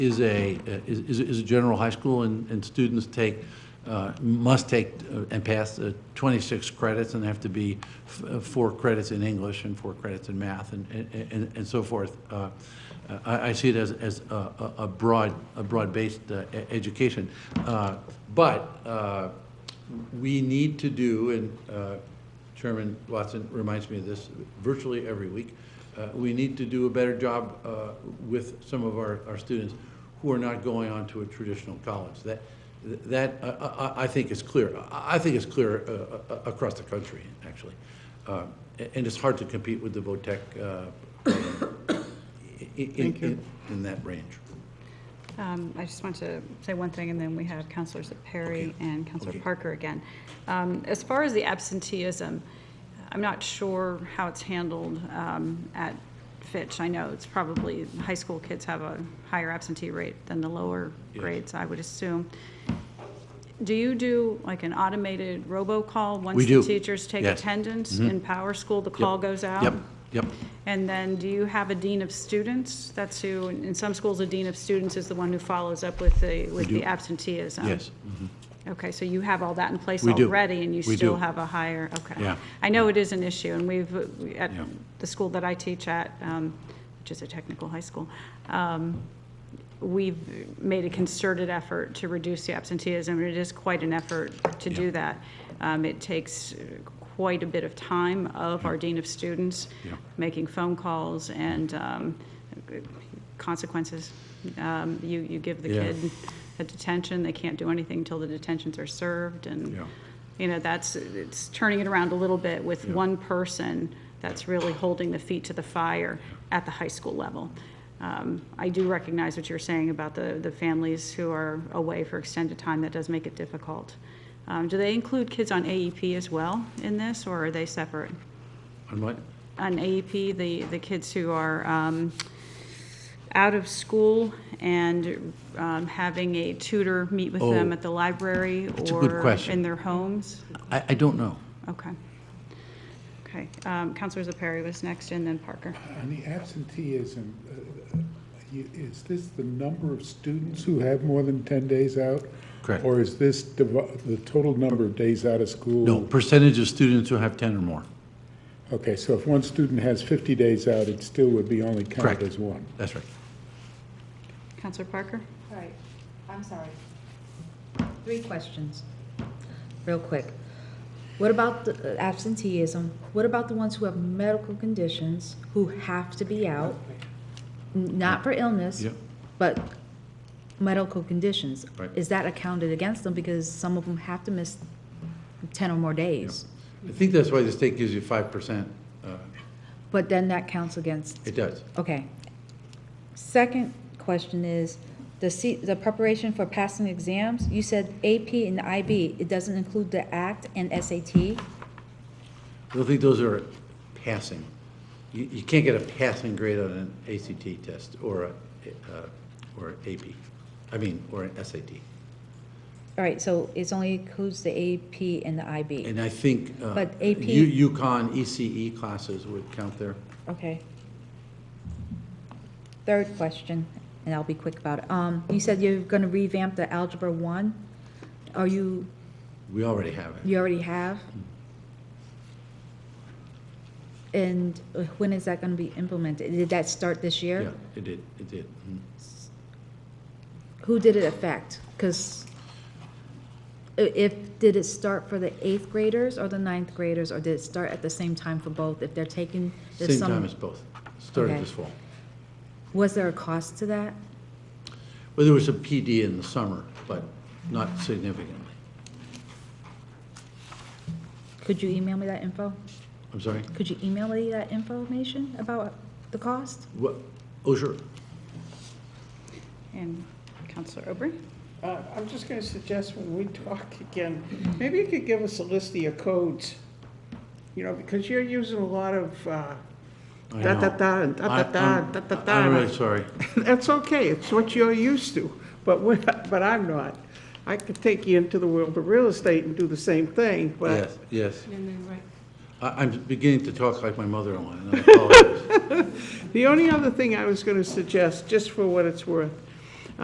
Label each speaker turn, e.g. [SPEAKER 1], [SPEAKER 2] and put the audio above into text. [SPEAKER 1] is a, uh, is, is- is a general high school, and, and students take, uh, must take uh, and pass uh, 26 credits, and have to be f- uh, four credits in English and four credits in math and, and- and, and so forth. Uh, I, I see it as, as a, a- a broad, a broad-based uh, e- education. Uh, But uh, we need to do, and uh, Chairman Watson reminds me of this virtually every week, uh, we need to do a better job uh, with some of our, our students who are not going on to a traditional college. That, that, I- I, I think is clear. I I think it's clear uh, uh, across the country, actually. Uh, And it's hard to compete with the VOTEC uh, in, in- in, in that range.
[SPEAKER 2] Um, I just want to say one thing, and then we have Counselors Perry
[SPEAKER 1] Okay.
[SPEAKER 2] and Counselor
[SPEAKER 1] Okay.
[SPEAKER 2] Parker again. Um, As far as the absenteeism, I'm not sure how it's handled um, at Fitch. I know it's probably, high school kids have a higher absentee rate than the lower
[SPEAKER 1] Yes.
[SPEAKER 2] grades, I would assume. Do you do like an automated robocall once
[SPEAKER 1] We do.
[SPEAKER 2] the teachers
[SPEAKER 1] Yes.
[SPEAKER 2] take
[SPEAKER 1] Mm-hmm.
[SPEAKER 2] attendance in Power School? The call goes out?
[SPEAKER 1] Yep, yep.
[SPEAKER 2] And then, do you have a dean of students? That's who, in some schools, a dean of students is the one who follows up with the,
[SPEAKER 1] We
[SPEAKER 2] with
[SPEAKER 1] do.
[SPEAKER 2] the absenteeism.
[SPEAKER 1] Yes.
[SPEAKER 2] Okay, so you have all that in place
[SPEAKER 1] We do.
[SPEAKER 2] already, and you
[SPEAKER 1] We
[SPEAKER 2] still
[SPEAKER 1] do.
[SPEAKER 2] have a higher, okay.
[SPEAKER 1] Yeah.
[SPEAKER 2] I know it is an issue, and we've, uh, we- at
[SPEAKER 1] Yeah.
[SPEAKER 2] the school that I teach at, um, which is a technical high school, um, we've made a concerted effort to reduce the absenteeism, and it is quite an effort to
[SPEAKER 1] Yeah.
[SPEAKER 2] do that. Um, It takes uh, quite a bit of time of our dean of students,
[SPEAKER 1] Yeah.
[SPEAKER 2] making phone calls and um, consequences. Um, You, you give the
[SPEAKER 1] Yeah.
[SPEAKER 2] kid a detention, they can't do anything until the detentions are served, and,
[SPEAKER 1] Yeah.
[SPEAKER 2] you know, that's, it's turning it around a little bit with
[SPEAKER 1] Yeah.
[SPEAKER 2] one person that's really holding the feet to the fire at the high school level. Um, I do recognize what you're saying about the, the families who are away for extended time, that does make it difficult. Um, Do they include kids on AEP as well in this, or are they separate?
[SPEAKER 1] On what?
[SPEAKER 2] on AEP, the, the kids who are um, out of school and um, having a tutor meet with them
[SPEAKER 1] Oh,
[SPEAKER 2] at the library
[SPEAKER 1] that's a good
[SPEAKER 2] or
[SPEAKER 1] question.
[SPEAKER 2] in their homes?
[SPEAKER 1] I, I don't know.
[SPEAKER 2] Okay. Okay, um, Counselor Zepari was next, and then Parker.
[SPEAKER 3] On the absenteeism, uh, you- is this the number of students who have more than 10 days out?
[SPEAKER 1] Correct.
[SPEAKER 3] Or is this div- the total number of days out of school?
[SPEAKER 1] No, percentage of students who have 10 or more.
[SPEAKER 3] Okay, so if one student has 50 days out, it still would be only
[SPEAKER 1] Correct.
[SPEAKER 3] counted as one?
[SPEAKER 1] That's right.
[SPEAKER 2] Counselor Parker?
[SPEAKER 4] All right, I'm sorry. Three questions, real quick. What about the uh, absenteeism? What about the ones who have medical conditions, who have to be out? N- Not for illness,
[SPEAKER 1] Yep.
[SPEAKER 4] but medical conditions.
[SPEAKER 1] Right.
[SPEAKER 4] Is that accounted against them because some of them have to miss 10 or more days?
[SPEAKER 1] I think that's why the state gives you 5%. uh,
[SPEAKER 4] But then that counts against
[SPEAKER 1] It does.
[SPEAKER 4] Okay. Second question is, the C, the preparation for passing exams, you said AP and IB, it doesn't include the ACT and SAT?
[SPEAKER 1] I don't think those are passing. You, you can't get a passing grade on an ACT test or a, uh, or AP, I mean, or an SAT.
[SPEAKER 4] All right, so it's only includes the AP and the IB,
[SPEAKER 1] And I think. uh,
[SPEAKER 4] But AP
[SPEAKER 1] U- UConn ECE classes would count there.
[SPEAKER 4] okay. Third question, and I'll be quick about it. Um, you said you're gonna revamp the Algebra One. Are you,
[SPEAKER 1] We already have it.
[SPEAKER 4] you already have? And uh, when is that gonna be implemented? Did that start this year?
[SPEAKER 1] Yeah, it did, it did. Mhm.
[SPEAKER 4] Who did it affect? Because if, did it start for the eighth graders or the ninth graders, or did it start at the same time for both? If they're taking, there's
[SPEAKER 1] Same time
[SPEAKER 4] some,
[SPEAKER 1] as both. Started
[SPEAKER 4] Okay.
[SPEAKER 1] this fall.
[SPEAKER 4] was there a cost to that?
[SPEAKER 1] Well, there was a PD in the summer, but not significantly.
[SPEAKER 4] Could you email me that info?
[SPEAKER 1] I'm sorry?
[SPEAKER 4] Could you email me that information about the cost?
[SPEAKER 1] What, oh, sure.
[SPEAKER 2] And Counselor Aubrey?
[SPEAKER 5] Uh, I'm just going to suggest when we talk again, maybe you could give us a list of your codes. You know, because you're using a lot of uh,
[SPEAKER 1] I
[SPEAKER 5] da da
[SPEAKER 1] know.
[SPEAKER 5] da, da da da,
[SPEAKER 1] I'm-
[SPEAKER 5] da da
[SPEAKER 1] I'm- I'm
[SPEAKER 5] da.
[SPEAKER 1] really sorry.
[SPEAKER 5] That's okay, it's what you're used to, but we're, but I'm not. I could take you into the world of real estate and do the same thing, but
[SPEAKER 1] Yes, yes. I- I'm beginning to talk like my mother-in-law, and I apologize.
[SPEAKER 5] the only other thing I was going to suggest, just for what it's worth,